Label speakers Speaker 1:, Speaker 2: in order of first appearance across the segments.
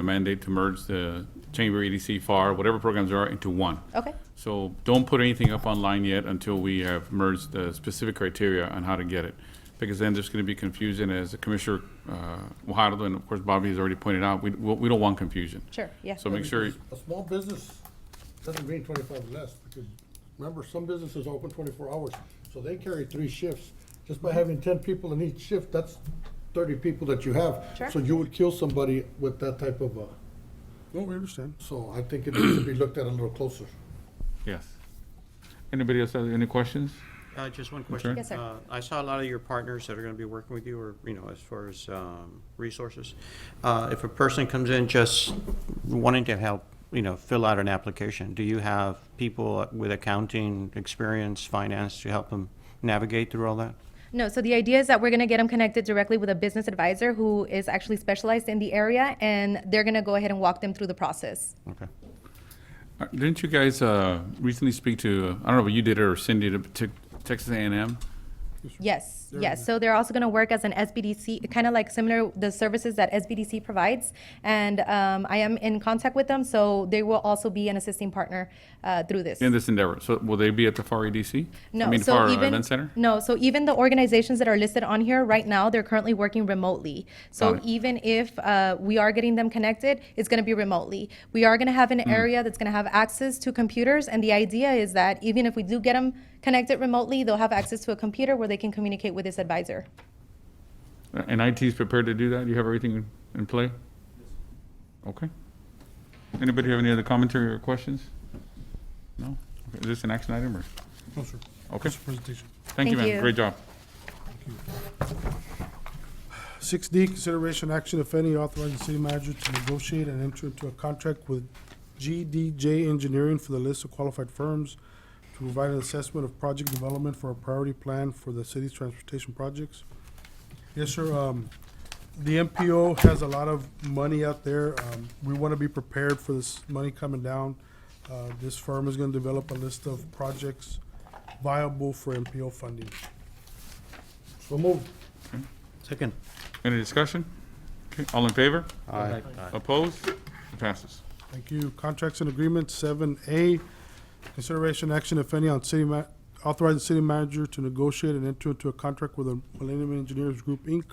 Speaker 1: the mandate to merge the Chamber E EDC FAR, whatever programs there are, into one.
Speaker 2: Okay.
Speaker 1: So don't put anything up online yet until we have merged the specific criteria on how to get it. Because then there's going to be confusion, as Commissioner uh, Fajardo and of course Bobby has already pointed out, we, we don't want confusion.
Speaker 2: Sure, yeah.
Speaker 1: So make sure,
Speaker 3: A small business doesn't mean twenty-five less, because remember, some businesses open twenty-four hours, so they carry three shifts. Just by having ten people in each shift, that's thirty people that you have.
Speaker 2: Sure.
Speaker 3: So you would kill somebody with that type of, uh,
Speaker 4: No, we understand.
Speaker 3: so I think it needs to be looked at a little closer.
Speaker 1: yes. Anybody else have any questions?
Speaker 5: Uh, Just one question.
Speaker 2: Yes, sir.
Speaker 5: Uh, I saw a lot of your partners that are going to be working with you, or, you know, as far as um, resources. Uh, If a person comes in just wanting to help, you know, fill out an application, do you have people with accounting experience, finance, to help them navigate through all that?
Speaker 2: No, so the idea is that we're gonna get them connected directly with a business advisor who is actually specialized in the area, and they're gonna go ahead and walk them through the process.
Speaker 5: Okay.
Speaker 1: Uh, Didn't you guys uh, recently speak to, uh, I don't know if you did it or Cindy, to to Texas A&M?
Speaker 2: Yes, yes. So they're also gonna work as an SBDC, kind of like similar, the services that SBDC provides. And um, I am in contact with them, so they will also be an assisting partner uh, through this.
Speaker 1: in this endeavor. So will they be at the FAR EDC?
Speaker 2: No,
Speaker 1: E I mean,
Speaker 2: so
Speaker 1: FAR
Speaker 2: even
Speaker 1: Event Center?
Speaker 2: no, so even the organizations that are listed on here right now, they're currently working remotely. So
Speaker 1: Got it.
Speaker 2: even if uh, we are getting them connected, it's going to be remotely. We are going to have an
Speaker 1: Mm.
Speaker 2: area that's going to have access to computers, and the idea is that even if we do get them connected remotely, they'll have access to a computer where they can communicate with this advisor.
Speaker 1: Uh, And IT's prepared to do that? You have everything in- in play? Okay. Anybody have any other commentary or questions? No? Okay, Is this an action item or?
Speaker 4: No, sir.
Speaker 1: Okay.
Speaker 4: That's the presentation.
Speaker 1: Thank you,
Speaker 2: Thank
Speaker 1: ma'am.
Speaker 2: you.
Speaker 1: Great job.
Speaker 4: Six D, consideration action, if any, authorizing city manager to negotiate and enter into a contract with GDJ Engineering for the list of qualified firms to provide an assessment of project development for a priority plan for the city's transportation projects. Yes, sir, um, the MPO has a lot of money out there. Um, we want to be prepared for this money coming down. Uh, this firm is going to develop a list of projects viable for MPO funding.
Speaker 3: So move.
Speaker 5: Second.
Speaker 1: Any discussion? Okay, All in favor?
Speaker 5: Aye.
Speaker 1: Opposed? It Passes.
Speaker 4: Thank you. Contracts and agreements, seven A, consideration action, if any, on city ma- authorizing city manager to negotiate and enter into a contract with the Millennium Engineers Group, Inc.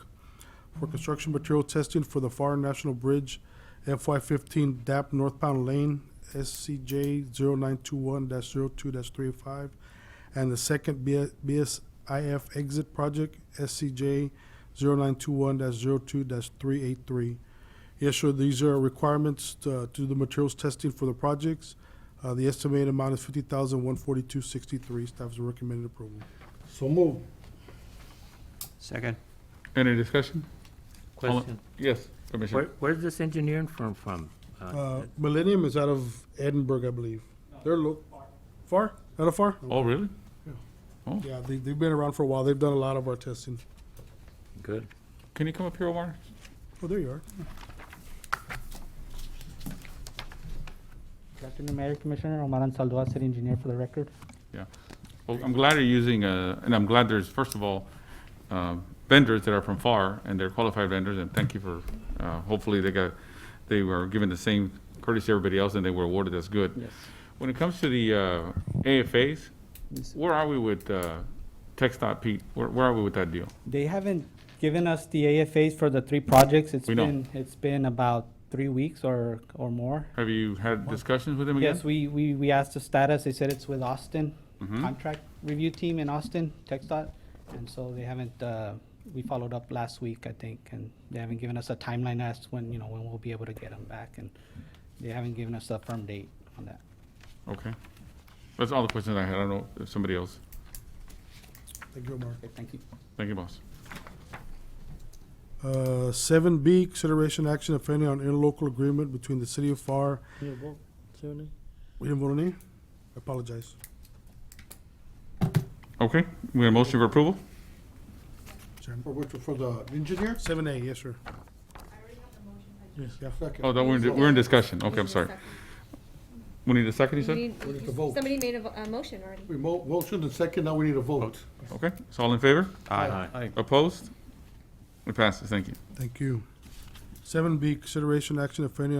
Speaker 4: for construction material testing for the Far National Bridge FY fifteen DAP northbound lane, SCJ 921 2 three five, and the second B- BSIF exit project, SCJ 921 2 three eight three. Yes, sure. These are requirements to to do the materials testing for the projects. Uh, The estimated amount is fifty thousand, one forty-two, sixty-three. Staff's recommended approval.
Speaker 3: So move.
Speaker 5: Second.
Speaker 1: Any discussion? All in-
Speaker 6: Question,
Speaker 1: Yes,
Speaker 6: where,
Speaker 1: Commissioner.
Speaker 6: where's this engineering firm from?
Speaker 4: Uh, Millennium is out of Edinburgh, I believe. They're lo- far, out of far?
Speaker 1: Oh, really?
Speaker 4: Yeah, they, they've been around for a while. They've done a lot of our testing.
Speaker 6: Good.
Speaker 1: Can you come up here, Omar?
Speaker 4: Oh, there you are.
Speaker 7: Good afternoon, Mayor Commissioner. Omaran Saldoa, City Engineer for the record.
Speaker 1: Yeah. Well, I'm glad you're using, uh, and I'm glad there's, first of all, uh, vendors that are from FAR, and they're qualified vendors, and thank you for, uh, hopefully they got, they were given the same courtesy to everybody else, and they were awarded, that's good.
Speaker 7: Yes.
Speaker 1: When it comes to the uh, AFAs, where are we with uh, TxDOT, Pete? Where where are we with that deal?
Speaker 7: They haven't given us the AFAs for the three projects. It's
Speaker 1: We know.
Speaker 7: been, it's been about three weeks or, or more.
Speaker 1: Have you had discussions with them again?
Speaker 7: Yes, we, we, we asked the status. They said it's with Austin, contract review team in Austin, TechDOT. And so they haven't, uh, we followed up last week, I think, and they haven't given us a timeline as to when, you know, when we'll be able to get them back. And they haven't given us a firm date on that.
Speaker 1: Okay. That's all the questions I had. I don't know if somebody else.
Speaker 4: Thank you, Omar.
Speaker 7: Okay, thank you.
Speaker 1: Thank you, boss.
Speaker 4: Uh, seven B, consideration action, if any, on interlocal agreement between the city of FAR. We didn't vote on any? I apologize.
Speaker 1: Okay, we have a motion for approval?
Speaker 3: For which, for the engineer?
Speaker 4: Seven A, yes, sir. Yeah.
Speaker 3: Second.
Speaker 1: Oh, that we're, in- we're in discussion. Okay, I'm sorry. We need a second, you said?
Speaker 3: We need to vote.
Speaker 8: Somebody made a, vo- a motion already.
Speaker 3: We mo- motion and second, now we need a vote.
Speaker 1: Okay, so all in favor?
Speaker 5: Aye.
Speaker 1: Opposed? It passes, thank you.
Speaker 4: Thank you. Seven B, consideration action, if any,